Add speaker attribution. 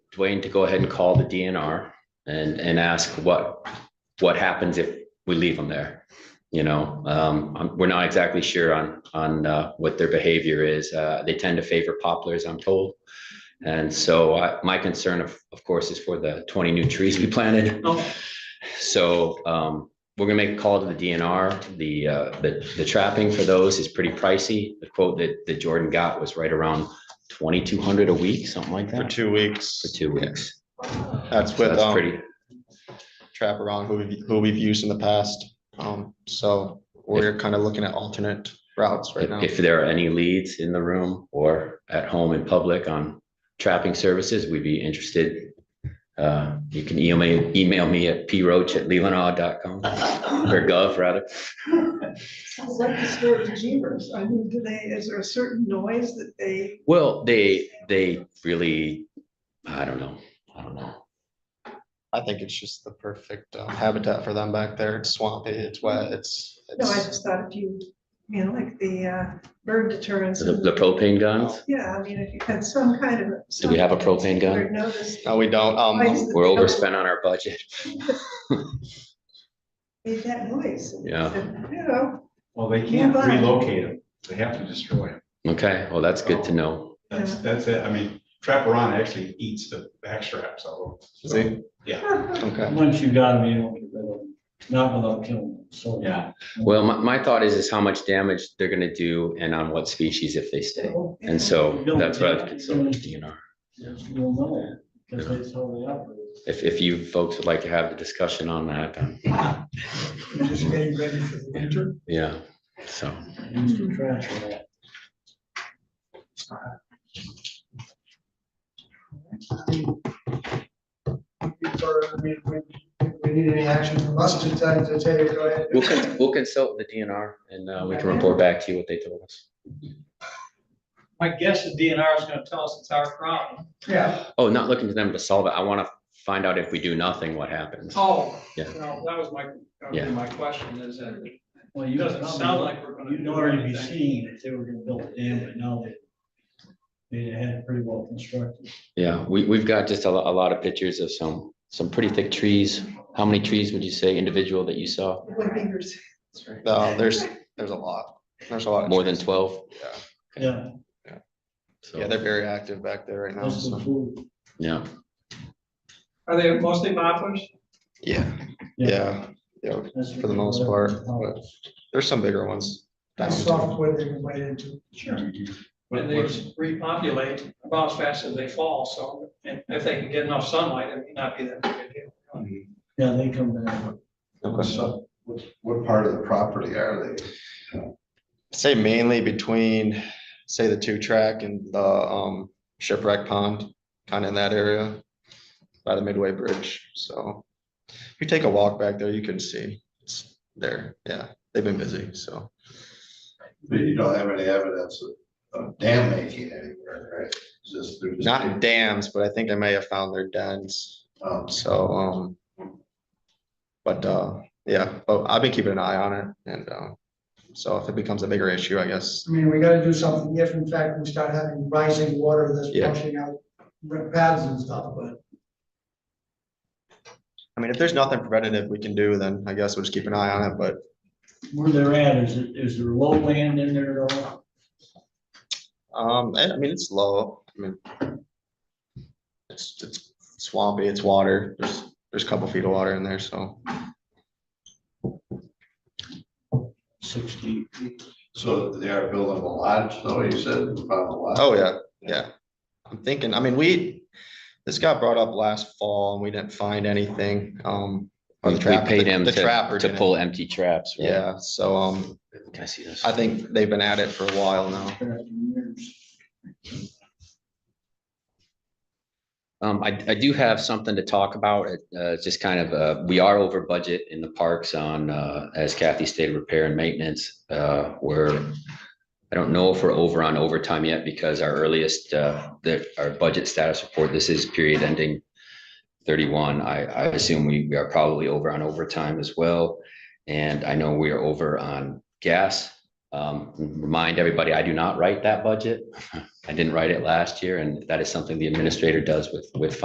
Speaker 1: Dwayne to go ahead and call the DNR and, and ask what, what happens if we leave them there? You know, um, I'm- we're not exactly sure on, on, uh, what their behavior is. Uh, they tend to favor poplars, I'm told. And so I, my concern of, of course, is for the twenty new trees we planted.
Speaker 2: Oh.
Speaker 1: So, um, we're gonna make a call to the DNR. The, uh, the, the trapping for those is pretty pricey. The quote that, that Jordan got was right around twenty-two hundred a week, something like
Speaker 3: for
Speaker 1: that,
Speaker 3: two weeks.
Speaker 1: for two weeks.
Speaker 3: That's
Speaker 1: So
Speaker 3: with
Speaker 1: that's
Speaker 3: um
Speaker 1: pretty,
Speaker 3: Trapper on who we've, who we've used in the past. Um, so we're kind of looking at alternate routes right now.
Speaker 1: if if there are any leads in the room or at home in public on trapping services, we'd be interested. Uh, you can email, email me at proach@lelandaw.com or gov rather.
Speaker 4: Sounds like the story of Jeevers. I mean, do they, is there a certain noise that they,
Speaker 1: Well, they, they really, I don't know, I don't know.
Speaker 3: I think it's just the perfect um, habitat for them back there. It's swampy, it's wet, it's.
Speaker 4: no, I
Speaker 3: it's-
Speaker 4: just thought if you, you know, like the uh, bird deterrence.
Speaker 1: The the propane guns,
Speaker 4: Yeah, I mean, if you had some kind of.
Speaker 1: do we have a propane gun?
Speaker 3: No, we don't. Um,
Speaker 1: We're overspent on our budget.
Speaker 4: Made that noise.
Speaker 1: Yeah.
Speaker 4: You know,
Speaker 5: Well, they can't
Speaker 4: Nearby.
Speaker 5: relocate them. They have to destroy them.
Speaker 1: Okay, well, that's good to know.
Speaker 5: That's, that's it. I mean, Trapperon actually eats the backstraps of them.
Speaker 3: see,
Speaker 5: Yeah,
Speaker 3: okay,
Speaker 6: Once you got them, you don't get rid of them, not without killing them, so.
Speaker 5: yeah.
Speaker 1: Well, my, my thought is, is how much damage they're gonna do and on what species if they stay. And so that's what I'd
Speaker 3: Mm-hmm.
Speaker 1: consult with DNR.
Speaker 6: You'll know, because that's how they operate.
Speaker 1: If, if you folks would like to have the discussion on that, um,
Speaker 2: Just getting ready for the winter.
Speaker 1: yeah, so.
Speaker 6: Use the trash for that.
Speaker 2: Before, I mean, we, if we need any action from us to tell, to tell you, to go ahead.
Speaker 1: We'll, con- we'll consult the DNR and, uh, we can report back to you what they told us.
Speaker 7: My guess is DNR is gonna tell us it's our problem.
Speaker 2: Yeah,
Speaker 1: Oh, not looking to them to solve it. I want to find out if we do nothing, what happens.
Speaker 7: Oh.
Speaker 1: Yeah.
Speaker 7: Well, that was my, that
Speaker 1: Yeah.
Speaker 7: was my question is that it
Speaker 6: Well, you
Speaker 7: doesn't sound like we're gonna.
Speaker 6: You'd
Speaker 7: do
Speaker 6: already be
Speaker 7: anything.
Speaker 6: seeing if they were gonna build a dam, but now they, they had it pretty well constructed.
Speaker 1: Yeah, we, we've got just a lot, a lot of pictures of some, some pretty thick trees. How many trees would you say individual that you saw?
Speaker 4: Wood fingers.
Speaker 3: no, there's, there's a lot. There's a lot. of
Speaker 1: More than
Speaker 3: trees.
Speaker 1: twelve?
Speaker 6: Yeah,
Speaker 3: Yeah,
Speaker 1: So,
Speaker 3: they're very active back there right now.
Speaker 6: that's the
Speaker 3: so-
Speaker 6: food.
Speaker 1: yeah,
Speaker 7: Are they mostly poplars?
Speaker 3: Yeah, yeah, yeah,
Speaker 6: that's
Speaker 3: for the most part, but there's some bigger ones. down
Speaker 2: that's
Speaker 3: too.
Speaker 2: software they can wait into.
Speaker 7: Sure.
Speaker 5: What-
Speaker 7: And they
Speaker 5: what's-
Speaker 7: repopulate about as fast as they fall, so and if they can get enough sunlight, it may not be that big a deal.
Speaker 6: Yeah, they come down.
Speaker 3: Okay.
Speaker 8: What, what part of the property are they?
Speaker 3: Say mainly between, say the two track and the um shipwreck pond, kind of in that area. By the Midway Bridge, so if you take a walk back there, you can see it's there, yeah, they've been busy, so.
Speaker 8: You don't have any evidence of, of dam making anywhere, right? It's Just, they're just.
Speaker 3: Not dams, but I think I may have found their dens,
Speaker 8: Um,
Speaker 3: so um. But uh, yeah, but I've been keeping an eye on it and uh, so if it becomes a bigger issue, I guess,
Speaker 2: I mean, we gotta do something if in fact we start having rising water that's
Speaker 3: Yeah.
Speaker 2: washing out rip pads and stuff, but
Speaker 3: I mean, if there's nothing preventative we can do, then I guess we'll just keep an eye on it, but.
Speaker 6: Where they're at, is it, is there low land in there at all?
Speaker 3: Um, I I mean, it's low, I mean. It's, it's swampy, it's water, there's, there's a couple feet of water in there, so.
Speaker 6: Sixty.
Speaker 8: so they are building a lodge, though, you said, about a lodge?
Speaker 3: Oh, yeah, yeah. I'm thinking, I mean, we, this got brought up last fall and we didn't find anything, um. or
Speaker 1: we
Speaker 3: the
Speaker 1: we
Speaker 3: trap-
Speaker 1: paid
Speaker 3: the-
Speaker 1: him
Speaker 3: the trapper
Speaker 1: to, to
Speaker 3: didn't.
Speaker 1: pull empty traps. right?
Speaker 3: Yeah, so, um,
Speaker 1: Can I see this?
Speaker 3: I think they've been at it for a while now.
Speaker 1: Um, I, I do have something to talk about. It, uh, it's just kind of, uh, we are over budget in the parks on, uh, as Kathy stated, repair and maintenance. Uh, we're, I don't know if we're over on overtime yet because our earliest, uh, the, our budget status report, this is period ending thirty-one. I, I assume we, we are probably over on overtime as well. And I know we are over on gas. Um, remind everybody, I do not write that budget. I didn't write it last year, and that is something the administrator does with, with